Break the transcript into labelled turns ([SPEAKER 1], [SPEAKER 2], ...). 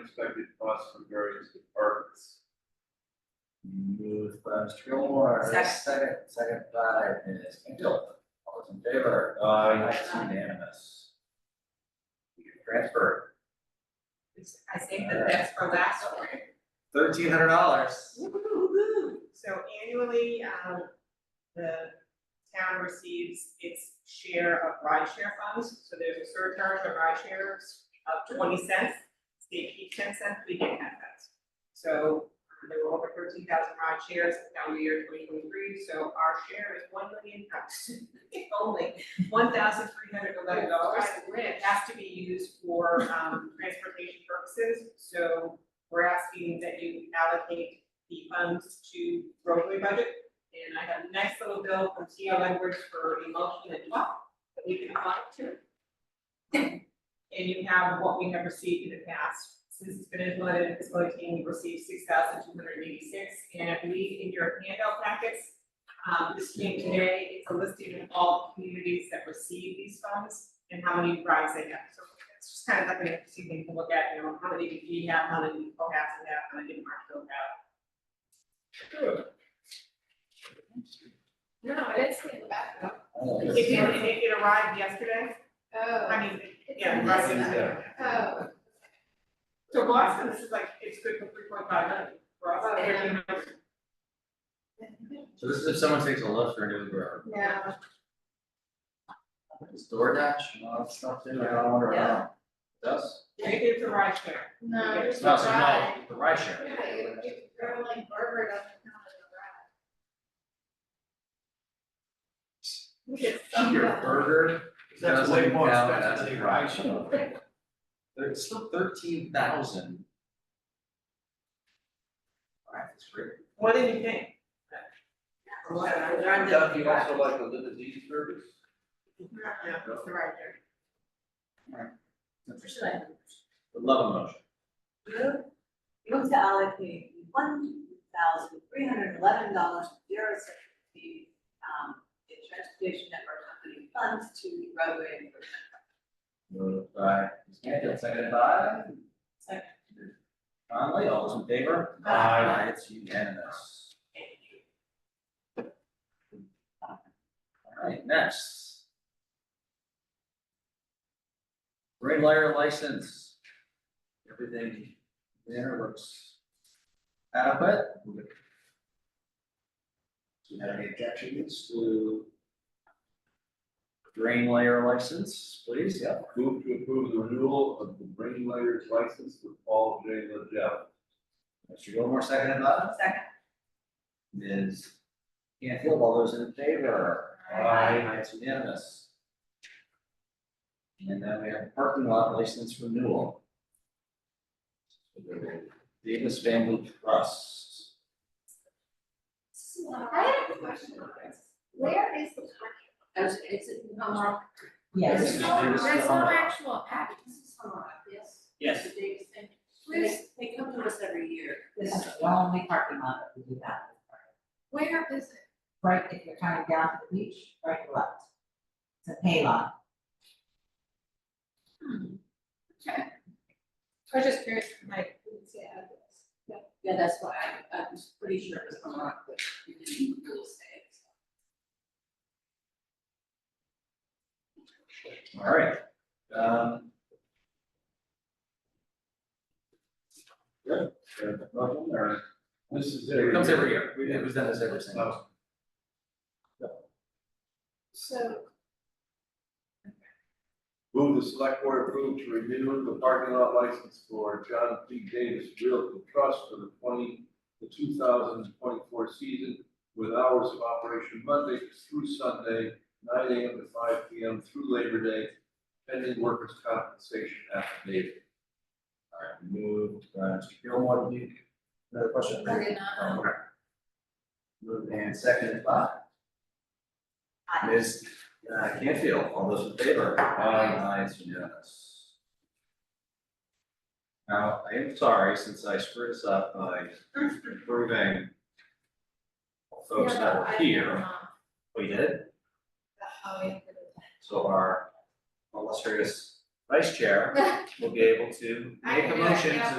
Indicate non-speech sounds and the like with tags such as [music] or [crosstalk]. [SPEAKER 1] unexpected costs from various departments.
[SPEAKER 2] Moved by Mr. Gilmore,
[SPEAKER 3] Second.
[SPEAKER 2] second, second by Ms. Candil. All those in favor?
[SPEAKER 1] Aye.
[SPEAKER 2] It's unanimous. Transfer
[SPEAKER 3] I think that that's for last one.
[SPEAKER 2] thirteen hundred dollars.
[SPEAKER 3] So annually, um, the town receives its share of ride share funds, so there's a surcharge of ride shares of twenty cents. State keeps ten cents, we get ten cents. So um, there were over thirteen thousand ride shares in calendar year twenty twenty-three, so our share is one million [laughs] pounds. Only one thousand three hundred eleven dollars. It has to be used for, um, transportation purposes, so we're asking that you allocate the funds to roadway budget. And I have a nice little bill from TL Edwards for emulsion and top that we can apply to. And you have what we have received in the past. Since it's been implemented in fiscal eighteen, we received six thousand two hundred eighty-six. And I believe in your handout packets, um, this came today, it's a listing of all communities that receive these funds and how many rides they have. So it's just kind of like an interesting thing to look at, you know, how many did we have, how many people have to have, how many didn't mark out.
[SPEAKER 4] No, I didn't see it in the back.
[SPEAKER 3] It did, it, it arrived yesterday,
[SPEAKER 4] Oh.
[SPEAKER 3] I mean, yeah, it arrived yesterday.
[SPEAKER 4] Oh,
[SPEAKER 3] So Boston, this is like, it's good for three point five million, for us,
[SPEAKER 4] Oh, yeah.
[SPEAKER 3] thirteen
[SPEAKER 2] So this is if someone takes a lunch or an Uber.
[SPEAKER 4] yeah.
[SPEAKER 2] It's DoorDash, no, it's not, I don't wonder how. Does?
[SPEAKER 3] It is a ride share,
[SPEAKER 4] No,
[SPEAKER 3] It's
[SPEAKER 4] just
[SPEAKER 2] No,
[SPEAKER 4] a
[SPEAKER 2] it's
[SPEAKER 4] ride.
[SPEAKER 2] not, the ride share.
[SPEAKER 4] Yeah, you, you throw like Burger doesn't count as a ride.
[SPEAKER 2] Your burger.
[SPEAKER 1] That's way
[SPEAKER 2] doesn't
[SPEAKER 1] more
[SPEAKER 2] count as
[SPEAKER 1] expensive than
[SPEAKER 2] a
[SPEAKER 1] your
[SPEAKER 2] ride
[SPEAKER 1] ice cream.
[SPEAKER 2] share. There- It's still thirteen thousand. Alright, that's great.
[SPEAKER 3] what did you think?
[SPEAKER 1] Doug, you also like a limousine service?
[SPEAKER 3] Yeah, it's the ride share.
[SPEAKER 2] Would love a motion.
[SPEAKER 5] Move to allocate one thousand three hundred eleven dollars zero six to the, um, the transportation network company funds to roadway improvement.
[SPEAKER 2] Moved by Ms. Cantfield, seconded by?
[SPEAKER 5] Second.
[SPEAKER 2] Conley, all those in favor?
[SPEAKER 4] Aye.
[SPEAKER 2] It's unanimous. Alright, next. Ring lighter license. Everything there looks adequate. Do you have any objections to? Drain layer license, please, yeah.
[SPEAKER 1] Move to approve the renewal of the Brain Layers license with Paul J. Liddell.
[SPEAKER 2] Mr. Gilmore, second by
[SPEAKER 5] Second.
[SPEAKER 2] Ms. Canfield, all those in favor?
[SPEAKER 1] Aye.
[SPEAKER 2] It's unanimous. And then we have parking lot license renewal. Davis Family Trust.
[SPEAKER 4] So, I have a question on this. Where is the parking?
[SPEAKER 5] it's a
[SPEAKER 2] Yes.
[SPEAKER 4] There's no, there's no actual act.
[SPEAKER 5] This is Hallmark, yes?
[SPEAKER 2] Yes.
[SPEAKER 5] The Davis thing.
[SPEAKER 4] Where's,
[SPEAKER 5] They come to us every year. This is the only parking lot that we do that.
[SPEAKER 4] where is it?
[SPEAKER 5] Right, if you're coming down to the beach, right left. It's a pay lot.
[SPEAKER 4] Okay. I was just curious, like, who would say add this?
[SPEAKER 5] Yeah, that's why I, I'm pretty sure it was Hallmark, but you didn't really say it.
[SPEAKER 2] All right, um. Good, there's a problem there.
[SPEAKER 1] This is.
[SPEAKER 2] It comes every year, We- it was done this every single.
[SPEAKER 1] Oh.
[SPEAKER 4] So,
[SPEAKER 1] Move the select board approve to renew the parking lot license for John P. Davis Realty Trust for the twenty, the two thousand twenty-four season with hours of operation Monday through Sunday, nine AM to five PM through Labor Day, pending workers' compensation affidavit.
[SPEAKER 2] All right, moved, uh, Mr. Gilmore, do you, another question?
[SPEAKER 4] I did not,
[SPEAKER 2] Oh, okay. Moved and seconded by.
[SPEAKER 5] Aye.
[SPEAKER 2] Ms. uh, Canfield, all those in favor? Aye. It's unanimous. Now, I am sorry, since I screwed this up by approving folks
[SPEAKER 4] Yeah,
[SPEAKER 2] that
[SPEAKER 4] I
[SPEAKER 2] were
[SPEAKER 4] did
[SPEAKER 2] here,
[SPEAKER 4] not.
[SPEAKER 2] we did it.
[SPEAKER 4] Oh, yeah.
[SPEAKER 2] So our illustrious vice chair will be able to
[SPEAKER 3] I
[SPEAKER 4] [laughs]
[SPEAKER 2] make a
[SPEAKER 3] can do that,
[SPEAKER 2] motion
[SPEAKER 3] yeah.
[SPEAKER 2] to